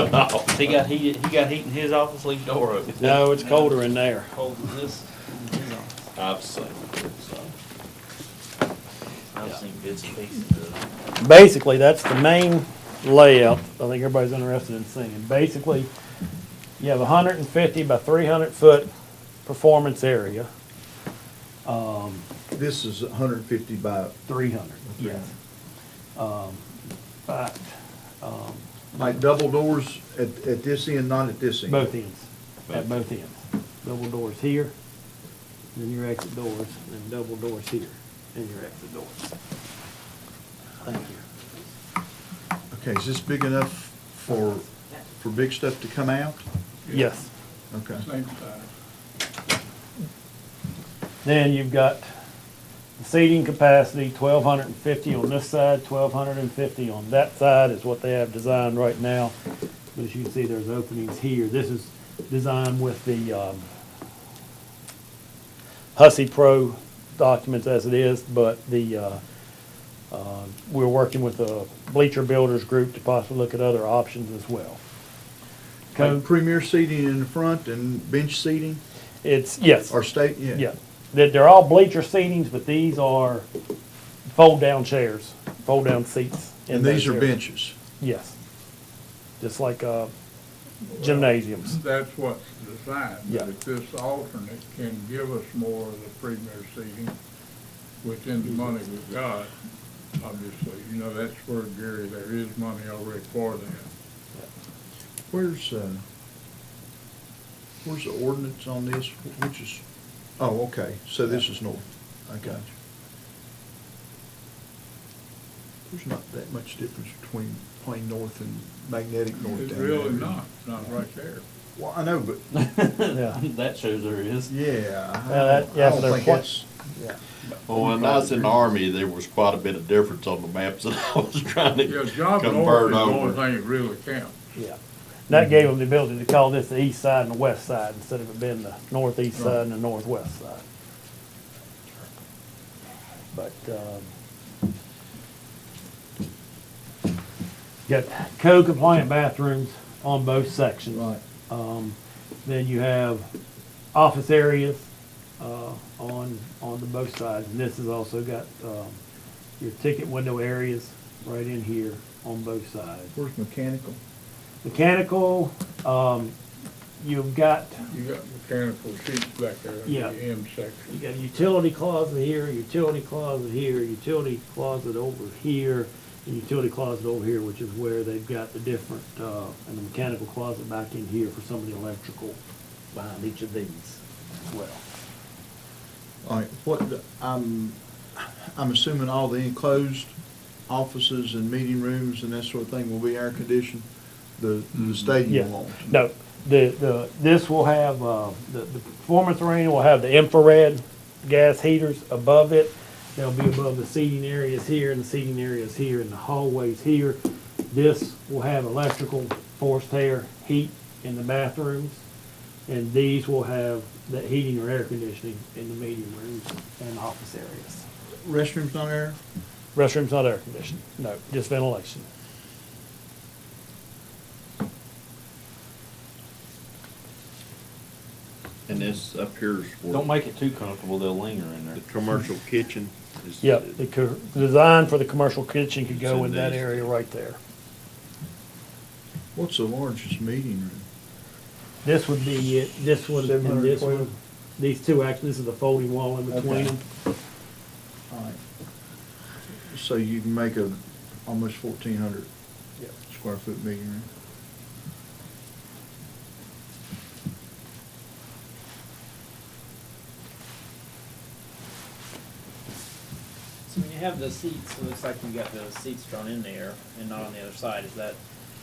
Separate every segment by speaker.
Speaker 1: No,
Speaker 2: He got heat, he got heat in his office, leave the door open.
Speaker 3: No, it's colder in there.
Speaker 2: Cold in this, in his office.
Speaker 1: I've seen it, so.
Speaker 2: I've
Speaker 3: Yeah.
Speaker 2: seen bits and pieces of it.
Speaker 3: Basically, that's the main layout. I think everybody's interested in seeing. Basically, you have a hundred and fifty by three hundred foot performance area. Um,
Speaker 4: This is hundred and fifty by,
Speaker 3: three hundred, yes.
Speaker 4: 300.
Speaker 3: Um, but, um,
Speaker 4: like double doors at, at this end, not at this end?
Speaker 3: both ends, at both ends. Double doors here, then your exit doors, and double doors here, and your exit doors. Thank you.
Speaker 4: Okay, is this big enough for, for big stuff to come out?
Speaker 3: Yes.
Speaker 4: Okay.
Speaker 5: Same size.
Speaker 3: Then you've got seating capacity, twelve hundred and fifty on this side, twelve hundred and fifty on that side is what they have designed right now. But as you can see, there's openings here. This is designed with the, um, Hussey Pro documents as it is, but the, uh, uh, we're working with a bleacher builders group to possibly look at other options as well.
Speaker 4: Like
Speaker 3: Code,
Speaker 4: premier seating in the front and bench seating,
Speaker 3: it's, yes.
Speaker 4: or state, yeah?
Speaker 3: Yeah, they're, they're all bleacher seatings, but these are fold-down chairs, fold-down seats. in
Speaker 4: And these
Speaker 3: those
Speaker 4: are
Speaker 3: areas.
Speaker 4: benches?
Speaker 3: Yes, just like, uh, gymnasiums.
Speaker 5: That's what's designed,
Speaker 3: Yeah.
Speaker 5: but if this alternate can give us more of the premier seating within the money we've got, obviously, you know, that's where Gary, there is money already for that.
Speaker 4: Where's, uh, where's the ordinance on this, which is, oh, okay, so this is north, I got you. There's not that much difference between plain north and magnetic north down
Speaker 5: It's
Speaker 4: there.
Speaker 5: really not, it's not right there.
Speaker 4: Well, I know, but,
Speaker 3: Yeah.
Speaker 2: That shows there is.
Speaker 4: yeah, I
Speaker 3: Well, Uh, that-
Speaker 4: don't,
Speaker 3: yeah,
Speaker 4: I
Speaker 3: for
Speaker 4: don't
Speaker 3: their
Speaker 4: think
Speaker 3: point-
Speaker 4: it's, yeah.
Speaker 1: Well, when I was in the army, there was quite a bit of difference on the maps that I was trying
Speaker 5: Yeah,
Speaker 1: to
Speaker 5: job and order
Speaker 1: convert
Speaker 5: is the only
Speaker 1: over.
Speaker 5: thing that really counts.
Speaker 3: Yeah, And that gave them the ability to call this the east side and the west side instead of it being the northeast side and the northwest side. But, um, got code compliant bathrooms on both sections.
Speaker 4: Right.
Speaker 3: Um, then you have office areas, uh, on, on the both sides, and this has also got, um, your ticket window areas right in here on both sides
Speaker 4: Where's mechanical?
Speaker 3: mechanical, um, you've got,
Speaker 5: You got mechanical seats back there in
Speaker 3: Yeah.
Speaker 5: the M
Speaker 3: you
Speaker 5: section.
Speaker 3: got a utility closet here, utility closet here, utility closet over here, and utility closet over here, which is where they've got the different, uh, and the mechanical closet back in here for some of the electrical behind each of these as well.
Speaker 4: All right, what, the- I'm, I'm assuming all the enclosed offices and meeting rooms and that sort of thing will be air conditioned? The,
Speaker 5: Mm-hmm.
Speaker 4: the
Speaker 3: Yeah.
Speaker 4: stadium won't?
Speaker 3: No, the, the, this will have, uh, the, the performance arena will have the infrared gas heaters above it. They'll be above the seating areas here and the seating areas here and the hallways here. This will have electrical forced air heat in the bathrooms. And these will have the heating or air conditioning in the meeting rooms and office areas.
Speaker 4: Restroom's not air?
Speaker 3: Restroom's not air conditioned, no, just ventilation.
Speaker 1: And this up here's where
Speaker 2: Don't make it too comfortable, they'll linger in there.
Speaker 1: the commercial kitchen is.
Speaker 3: Yeah, the co- design for the commercial kitchen could go
Speaker 1: It's
Speaker 3: in
Speaker 1: in
Speaker 3: that
Speaker 1: these.
Speaker 3: area right there.
Speaker 4: What's the largest meeting room?
Speaker 3: This would be it, this one and this
Speaker 4: 720.
Speaker 3: one. These two, actually, this is the folding wall in between
Speaker 4: Okay.
Speaker 3: them.
Speaker 4: All right. So you can make a, almost fourteen hundred
Speaker 3: Yep.
Speaker 4: square foot meeting room?
Speaker 6: So when you have the seats, it looks like you got the seats drawn in there and not on the other side. Is that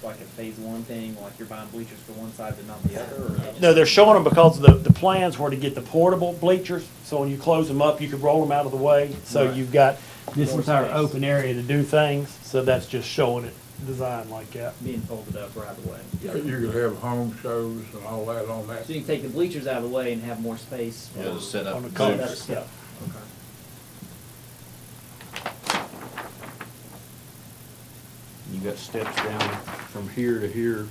Speaker 6: like a phase one thing, like you're buying bleachers for one side but not the other? or they
Speaker 3: No,
Speaker 6: just-
Speaker 3: they're showing them because the, the plans were to get the portable bleachers, so when you close them up, you could roll them out of the way. So
Speaker 6: Right.
Speaker 3: you've got this
Speaker 6: More
Speaker 3: entire
Speaker 6: space.
Speaker 3: open area to do things, so that's just showing it designed like that.
Speaker 6: Being folded up right away.
Speaker 5: You could have home shows and all that on that.
Speaker 6: So you can take the bleachers out of the way and have more space.
Speaker 1: Yeah, the
Speaker 6: for-
Speaker 1: setup.
Speaker 3: On the
Speaker 1: is
Speaker 3: cover.
Speaker 1: different.
Speaker 3: Yeah.
Speaker 6: Okay.
Speaker 2: You got steps down from here to here.